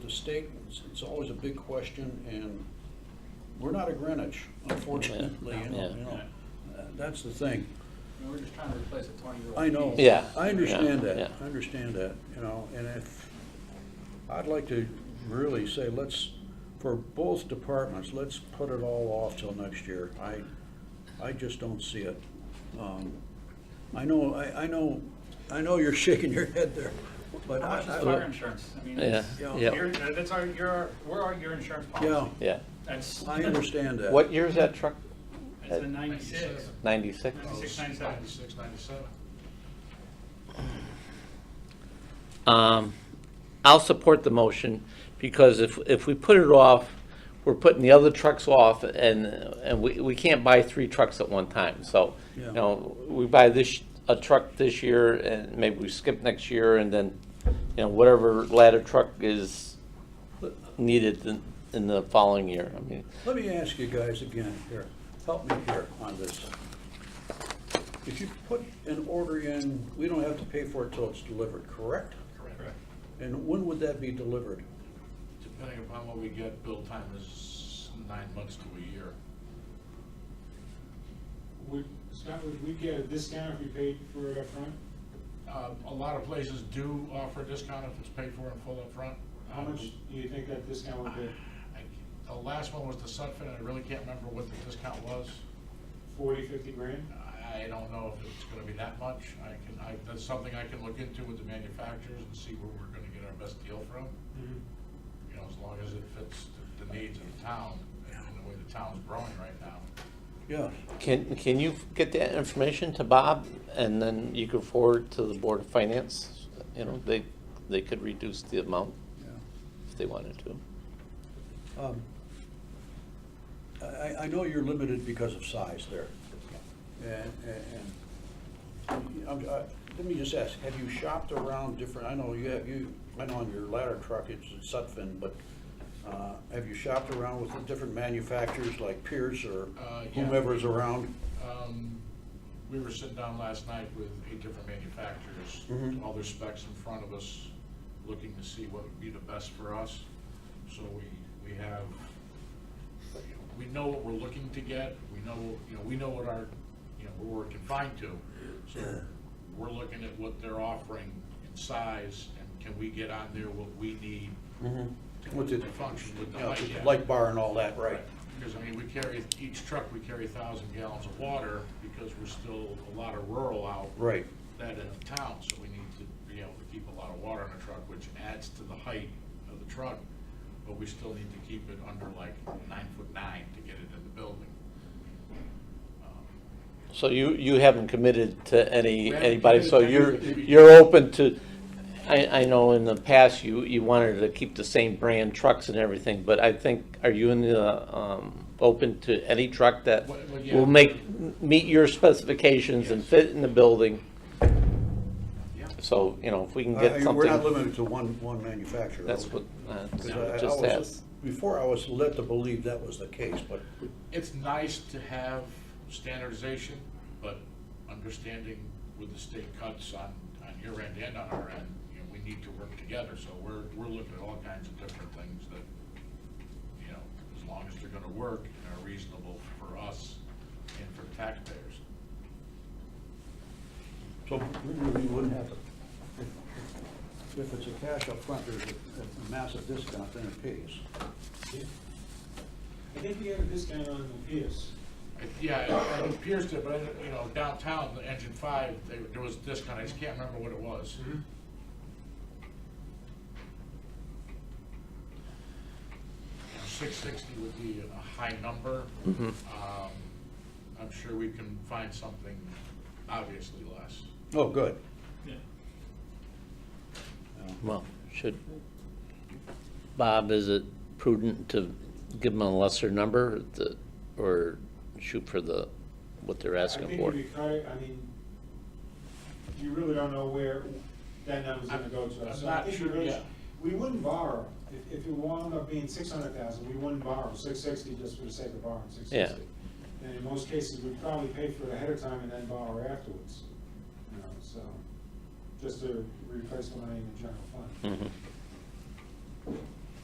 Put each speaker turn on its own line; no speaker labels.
state, it's, it's always a big question, and we're not a Greenwich, unfortunately, you know,
Yeah.
you know. Uh, That's the thing.
I mean, We're just trying to replace a twenty-year-old.
I know.
Yeah.
I understand
yeah,
that,
yeah.
I understand that, you know, and if, I'd like to really say, let's, for both departments, let's put it all off till next year. I, I just don't see it. Um, I know, I, I know, I know you're shaking your head there, but
How
I,
much is fire
I,
insurance? I mean,
Yeah,
it's-
yeah.
you're- that's our, your, we're our, your insurance
yeah,
policy.
Yeah.
That's,
I understand that.
What year is that truck?
it's a ninety-six,
96?
ninety-six, ninety-seven.
Ninety-six, ninety-seven.
Um, I'll support the motion because if, if we put it off, we're putting the other trucks off and, and we, we can't buy three trucks at one time. So,
Yeah.
you know, we buy this, a truck this year and maybe we skip next year and then, you know, whatever ladder truck is needed in, in the following year. I mean,
Let me ask you guys again here, help me here on this. If you put an order in, we don't have to pay for it till it's delivered, correct?
Correct.
And when would that be delivered?
Depending upon what we get, build time is nine months to a year.
Would, Scott, would we get a discount if we paid for it upfront?
Um, A lot of places do offer a discount if it's paid for in full upfront. Um,
How much do you think that discount would be?
I- The last one was the Sutphen, and I really can't remember what the discount was.
Forty, fifty grand?
I I don't know if it's gonna be that much. I can, I, that's something I can look into with the manufacturers and see where we're gonna get our best deal from.
Mm-hmm.
You know, as long as it fits the- the needs of the town and the way the town's growing right now.
Yeah,
can, can you get that information to Bob? And then you can forward to the Board of Finance, you know, they, they could reduce the amount
yeah.
if they wanted to.
Um, I- I, I know you're limited because of size there. And, and, and, I'm- I- let me just ask, have you shopped around different, I know you have, you, I know on your ladder truck, it's in Sutphen, but, uh, have you shopped around with the different manufacturers like Pierce or
Uh, yeah.
whomever's around?
Um, We were sitting down last night with eight different manufacturers,
Mhm.
all their specs in front of us, looking to see what would be the best for us. So we, we have, you know, we know what we're looking to get, we know, you know, we know what our, you know, what we're confined to. So we're looking at what they're offering in size, and can we get on there what we need
With the,
to function with the
Mm-hmm. you know,
light. yeah.
light bar and all that, right?
Because, I mean, we carry, each truck, we carry thousand gallons of water because we're still a lot of rural out.
Right.
That in the town, so we need to be able to keep a lot of water in a truck, which adds to the height of the truck. But we still need to keep it under like nine foot nine to get it in the building. Um,
So you, you haven't committed to
We
any,
haven't
anybody, so you're,
committed to anything.
you're open to, I, I know in the past you, you wanted to keep the same brand trucks and everything, but I think, are you in the, um, open to any truck that
Well, well, yeah.
will make, meet your specifications and fit in the building?
Yeah.
So, you know, if we can
Uh,
get
We're not
something,
limited to one, one manufacturer.
that's what, uh,
'Cause I- I
just
was-
asked.
Before, I was led to believe that was the case, but
It's nice to have standardization, but understanding with the state cuts on, on your end and on our end, you know, we need to work together, so we're, we're looking at all kinds of different things that, you know, as long as they're gonna work and are reasonable for us and for taxpayers.
So we wouldn't have to, if- if it's a cash up front, there's a- a massive discount, then it pays.
I think we have a discount on the Pierce.
I- Yeah, it- it appears to, but, you know, downtown, the engine five, they- there was a discount, I just can't remember what it was. Six sixty would be a high number. Um, I'm sure we can find something obviously less.
Oh, good.
Well, should, Bob, is it prudent to give them a lesser number the- or shoot for the, what they're asking
I
for?
think if we cut it, I mean, you really don't know where that number's gonna go to.
I'm
So I
not
think we
sure
really
yet.
should- We wouldn't borrow, if, if it wound up being six hundred thousand, we wouldn't borrow six sixty just for the sake of borrowing six sixty. And in most cases, we'd probably pay for it ahead of time and then borrow afterwards, you know, so,
Mm-hmm.
just to replace the money in the general fund.
Mhm.